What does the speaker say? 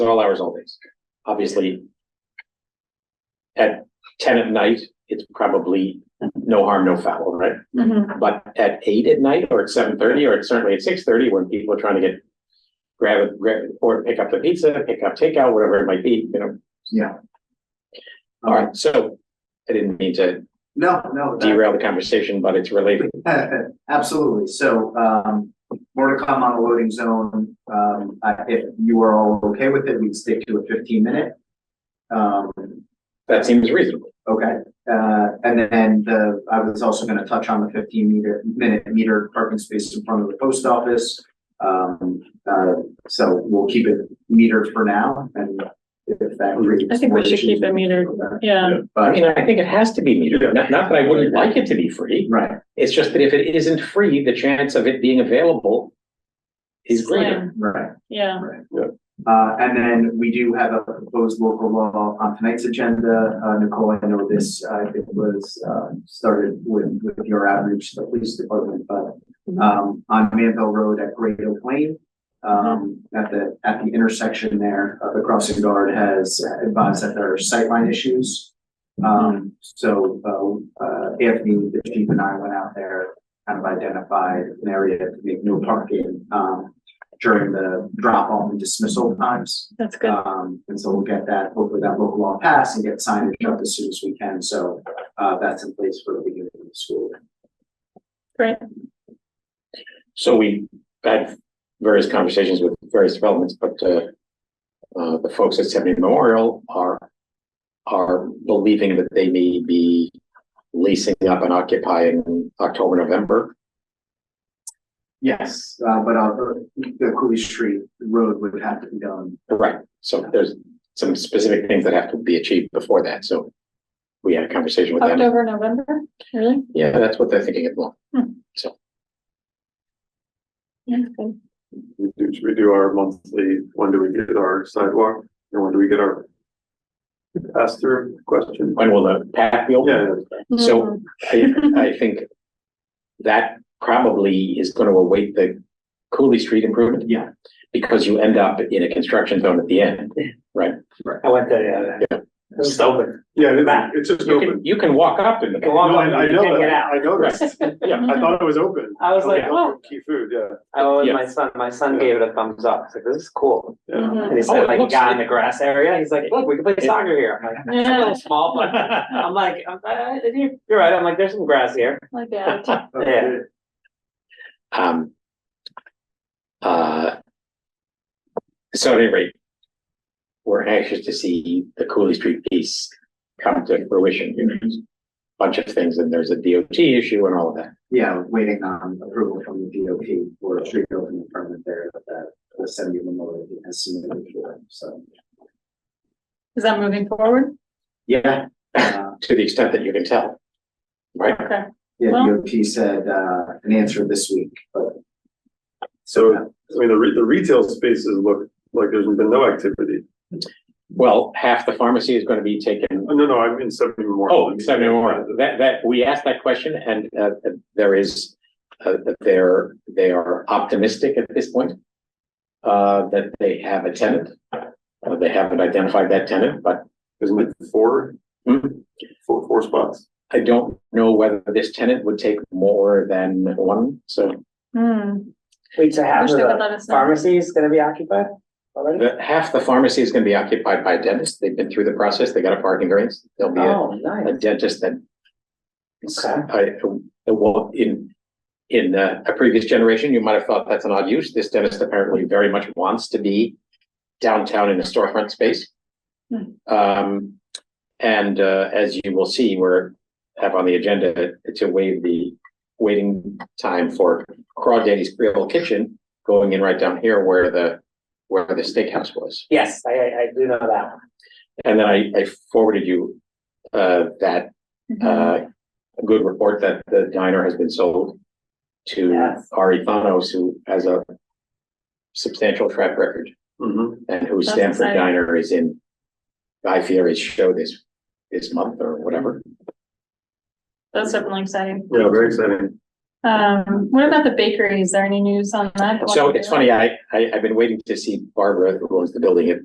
they're all hours, all days. Obviously, at ten at night, it's probably no harm, no foul, right? Mm-hmm. But at eight at night or at seven thirty or certainly at six thirty, when people are trying to get grab it, grab or pick up the pizza, pick up takeout, whatever it might be, you know. Yeah. All right, so I didn't mean to No, no. that- derail the conversation, but it's related. Absolutely. So, um, more to come on the loading zone. Um, I- if you are all okay with it, we'd stick to a fifteen minute. Um, That seems reasonable. okay, uh, and then the, I was also gonna touch on the fifteen meter, minute meter parking space in front of the post office. Um, uh, so we'll keep it metered for now and if that. creates I think we more should issues, keep it metered. we'll go back. Yeah, I But, mean, I think it has to be metered. Not, not that I wouldn't like it to be free. right, It's just that if it isn't free, the chance of it being available is greater. Slim. right. yeah. Uh, and then we do have a proposed local law on tonight's agenda. Uh, Nicole, I know this, uh, it was, uh, started with, with your outreach to the police department, but, um, on Manville Road at Great Oak Lane, um, at the, at the intersection there, uh, the crossing guard has advised that there are sightline issues. Um, so, uh, uh, Anthony, the chief and I went out there, kind of identified an area to make no parking, um, during the drop off and dismissal times. That's good. Um, and so we'll get that, hopefully that local law passed and get signage up as soon as we can. So, uh, that's in place for the beginning of the school. Great. So we had various conversations with various developments, but uh, uh, the folks at Seventy Memorial are are believing that they may be leasing up and occupying October, November. Yes. Uh, but, uh, the Cooley Street Road would have to be done. Right, so there's some specific things that have to be achieved before that, so we had a conversation with them. October, November, really? Yeah, that's what they're thinking at the moment. Yeah, good. We do, should we do our monthly, when do we get our sidewalk, and when do we get our pass through question? When will the path be open? Yeah, So I, I think that probably is gonna await the Cooley Street improvement. Yeah. Because you end up in a construction zone at the end. I went there, yeah. It's open. yeah, Back. it- it's just You can, open. you can walk up in the. No, I, I You can't know get that, out. I noticed, Yeah, Mm-hmm. I thought it was open. I was like, Okay. oh. Key food, yeah, I went Yeah. with my son, my son gave it a thumbs up, he's like, this is cool. yeah. Mhm. And he Oh, it said, like, he looks got in like- the grass area, he's like, look, we can play Yeah. soccer here. I'm like, "It's a Yeah. little small, but, I'm like, I'm- I- I- you're, you're right, I'm like, there's some grass here. Like that. Yeah. Um. Uh. So at any rate. We're anxious to see the Cooley Street piece come to fruition, you know, there's a bunch of things, and there's a DOT issue and all of that. Yeah, waiting on approval from the DOT for a street opening permit there that the seventy memorial has submitted for, so. Is that moving forward? Yeah. Uh, To the extent that you can tell. Right, Okay. Yeah, Well- DOT said, uh, an answer this week, but. So, I mean, the re- the retail spaces look like there's been no activity, well, half the pharmacy is gonna be taken, Oh, no, no, I'm in seventy Memorial. oh, seventy more, that, that, we asked that question, and, uh, there is. Uh, that they're, they are optimistic at this point. Uh, that they have a tenant, Uh, they haven't identified that tenant, but Isn't it four, Hmm. four, four spots? I don't know whether this tenant would take more than one, so Hmm. Wait, so half Wish of they would the let us know. pharmacy is gonna be occupied already? the, half the pharmacy is gonna be occupied by dentists. They've been through the process. They got a parking variance. There'll be a- Oh, a nice. dentist that Okay. I, I- well, in, in uh, a previous generation, you might have thought that's an odd use. This dentist apparently very much wants to be downtown in a storefront space. Hmm. Um, and, uh, as you will see, we're, have on the agenda to waive the waiting time for Crawdaddy's Creole Kitchen going in right down here where the, where the steakhouse was. Yes, I, I, I do know that. And then I, I forwarded you, uh, that Mm-hmm. uh, a good report that the diner has been sold to Yes. Ari Thanos, who has a substantial track record Mm-hmm. and who That's Stanford exciting. Diner is in Guy Fieri's show this, this month or whatever. That's definitely exciting. Yeah, very exciting. Um, what about the bakery? Is there any news on that? So it's funny, I, I, I've been waiting to see Barbara, who owns the building at